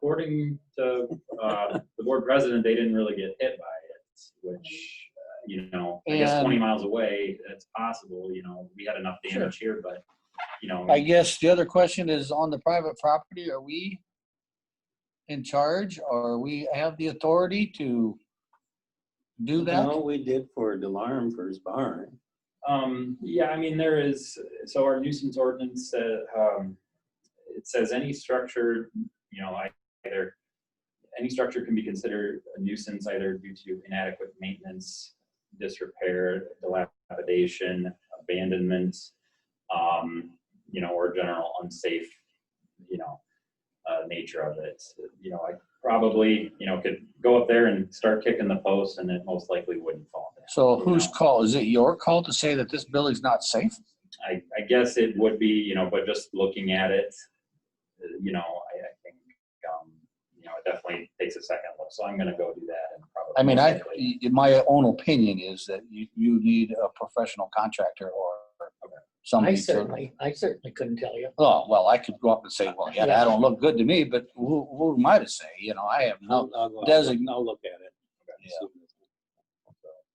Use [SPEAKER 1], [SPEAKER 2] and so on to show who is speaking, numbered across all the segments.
[SPEAKER 1] according to uh, the board president, they didn't really get hit by it, which, uh, you know, I guess
[SPEAKER 2] And-
[SPEAKER 1] 20 miles away, that's possible, you know, we had enough damage here, but, you know,
[SPEAKER 2] I guess the other question is on the private property, are we in charge or we have the authority to do that?
[SPEAKER 3] No, we did for Delarm for his barn.
[SPEAKER 1] Um, yeah, I mean, there is, so our nuisance ordinance, uh, um, it says any structure, you know, either, any structure can be considered a nuisance either due to inadequate maintenance, disrepair, dilapidation, abandonment, um, you know, or general unsafe, you know, uh, nature of it. You know, I probably, you know, could go up there and start kicking the post and it most likely wouldn't fall down.
[SPEAKER 2] So
[SPEAKER 1] you
[SPEAKER 2] whose
[SPEAKER 1] know?
[SPEAKER 2] call? Is it your call to say that this building's not safe?
[SPEAKER 1] I, I guess it would be, you know, but just looking at it, uh, you know, I, I think, um, you know, it definitely takes a second look. So I'm gonna go do that and probably.
[SPEAKER 2] I mean, I,
[SPEAKER 1] likely-
[SPEAKER 2] y- my own opinion is that you, you need a professional contractor or
[SPEAKER 4] I
[SPEAKER 2] somebody to.
[SPEAKER 4] certainly, I certainly couldn't tell you.
[SPEAKER 2] Oh, well, I could go up and say, well, yeah, that don't look good to me, but who, who am I to say? You know, I have no
[SPEAKER 3] I'll, I'll go,
[SPEAKER 2] Desi-
[SPEAKER 3] I'll look at it.
[SPEAKER 2] Yeah.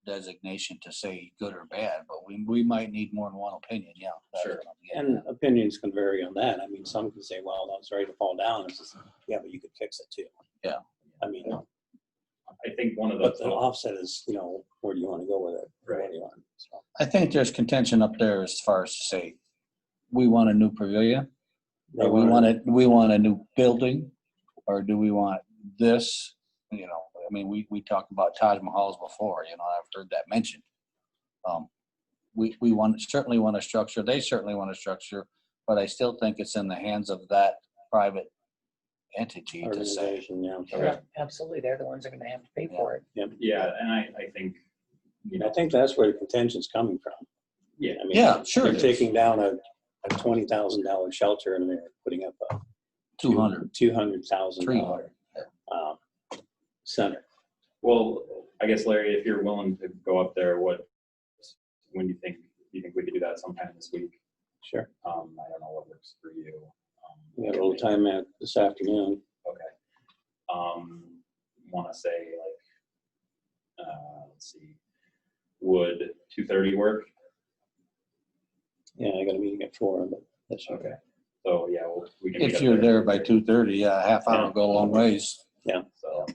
[SPEAKER 2] designation to say good or bad, but we, we might need more than one opinion, yeah. that's
[SPEAKER 1] Sure.
[SPEAKER 2] what I'm getting
[SPEAKER 3] And opinions can vary on that. I mean, some can say, well, that was ready to fall down. It's just, yeah, but you could fix it too.
[SPEAKER 2] Yeah.
[SPEAKER 3] I mean,
[SPEAKER 1] I think one of
[SPEAKER 3] but the
[SPEAKER 1] the,
[SPEAKER 3] offset is, you know, where do you want to go with it? Where do you want? So,
[SPEAKER 2] I think there's contention up there as far as to say, we want a new pavilion,
[SPEAKER 3] they
[SPEAKER 2] or we want
[SPEAKER 3] wanna-
[SPEAKER 2] a, we want a new building, or do we want this? You know, I mean, we, we talked about Taj Mahals before, you know, I've heard that mentioned. Um, We, we want, certainly want a structure, they certainly want a structure, but I still think it's in the hands of that private entity to say.
[SPEAKER 3] Organization, yeah.
[SPEAKER 1] Okay.
[SPEAKER 4] Absolutely, they're the ones that are gonna have to pay for it.
[SPEAKER 1] yeah, and I, I think, you
[SPEAKER 3] And I
[SPEAKER 1] know,
[SPEAKER 3] think that's where the contention's coming from.
[SPEAKER 1] Yeah.
[SPEAKER 3] I mean,
[SPEAKER 2] Yeah, sure.
[SPEAKER 3] They're taking down a, a twenty thousand dollar shelter and they're putting up a.
[SPEAKER 2] Two hundred.
[SPEAKER 3] Two hundred thousand
[SPEAKER 2] Three
[SPEAKER 3] dollar. uh,
[SPEAKER 2] hundred,
[SPEAKER 3] Center.
[SPEAKER 1] well, I guess Larry, if you're willing to go up there, what, when do you think, do you think we could do that sometime this week?
[SPEAKER 3] Sure.
[SPEAKER 1] Um, I don't know what works for you. Um,
[SPEAKER 3] We got a little time out this afternoon.
[SPEAKER 1] Okay. Um, want to say like, uh, let's see, would two thirty work?
[SPEAKER 3] Yeah, I got a meeting at four, but that's okay.
[SPEAKER 1] Okay. So yeah, we'll- we can. meet
[SPEAKER 2] If
[SPEAKER 1] up
[SPEAKER 2] you're there by
[SPEAKER 1] 2:30.
[SPEAKER 2] two thirty, yeah, a half hour
[SPEAKER 1] Yeah.
[SPEAKER 2] will go a long ways.
[SPEAKER 1] So,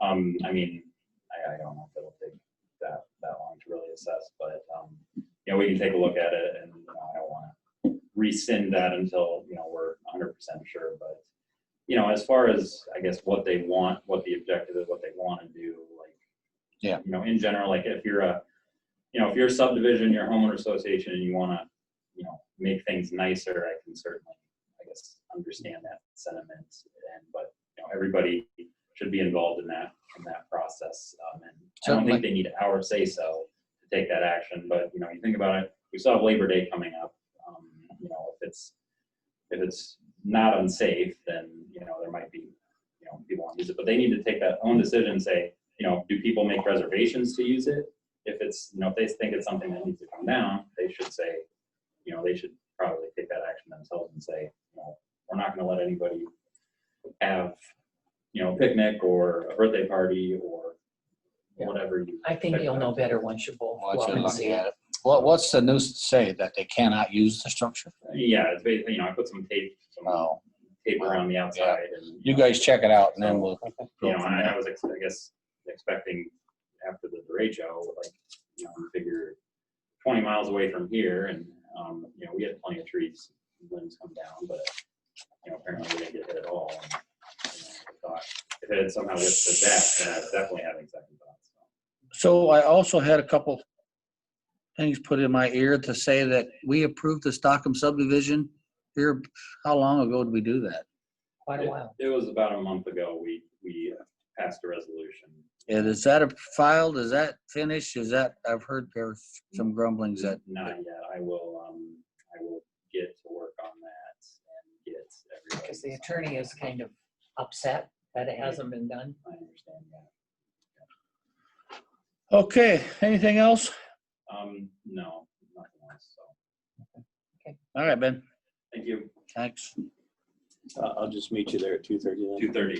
[SPEAKER 1] um, I mean, I, I don't know if it'll take that, that long to really assess, but, um, you know, we can take a look at it and, you know, I don't want to rescind that until, you know, we're hundred percent sure, but, you know, as far as, I guess, what they want, what the objective is, what they want to do, like.
[SPEAKER 2] Yeah.
[SPEAKER 1] You know, in general, like if you're a, you know, if you're a subdivision, your homeowner association and you want to, you know, make things nicer, I can certainly, I guess, understand that sentiment and, but, you know, everybody should be involved in that, in that process. Um, and I don't think
[SPEAKER 2] Certainly.
[SPEAKER 1] they need our say-so to take that action, but, you know, you think about it, we still have Labor Day coming up. Um, You know, if it's, if it's not unsafe, then, you know, there might be, you know, people want to use it, but they need to take that own decision and say, you know, do people make reservations to use it? If it's, you know, if they think it's something that needs to come down, they should say, you know, they should probably take that action themselves and say, you know, we're not gonna let anybody have, you know, a picnic or a birthday party or
[SPEAKER 4] Yeah.
[SPEAKER 1] whatever you.
[SPEAKER 4] I think you'll know better once you both go
[SPEAKER 2] Watch
[SPEAKER 4] up
[SPEAKER 2] it,
[SPEAKER 4] and
[SPEAKER 2] look
[SPEAKER 4] see
[SPEAKER 2] at
[SPEAKER 4] it.
[SPEAKER 2] it. What, what's the news say that they cannot use the structure?
[SPEAKER 1] Yeah, it's basically, you know, I put some tape, some
[SPEAKER 2] No,
[SPEAKER 1] tape around the outside and.
[SPEAKER 2] you guys check it out and then we'll.
[SPEAKER 1] you
[SPEAKER 2] go
[SPEAKER 1] know,
[SPEAKER 2] from
[SPEAKER 1] and I, I
[SPEAKER 2] there.
[SPEAKER 1] was, ex- I guess, expecting after the derecho, like, you know, we figure twenty miles away from here, and um, you know, we had plenty of trees, limbs come down, but you know, apparently we didn't get hit at all. And, you know, I thought if it had somehow whipped to that, then I was definitely having second thoughts. So,
[SPEAKER 2] So I also had a couple things put in my ear to say that we approved the Stockholm subdivision here. How long ago did we do that?
[SPEAKER 4] Quite a while.
[SPEAKER 1] It was about a month ago. We we uh, passed a resolution.
[SPEAKER 2] And is that filed? Is that finished? Is that, I've heard there's some grumblings that.
[SPEAKER 1] Not yet. I will. Um, I will get to work on that and get everybody.
[SPEAKER 4] Because the attorney is kind of upset that it hasn't been done.
[SPEAKER 1] I understand that.
[SPEAKER 2] Okay, anything else?
[SPEAKER 1] Um, no, nothing else, so,
[SPEAKER 2] All right, Ben,
[SPEAKER 1] thank you.
[SPEAKER 2] thanks.
[SPEAKER 3] Uh, I'll just meet you there at two thirty.
[SPEAKER 1] Two thirty.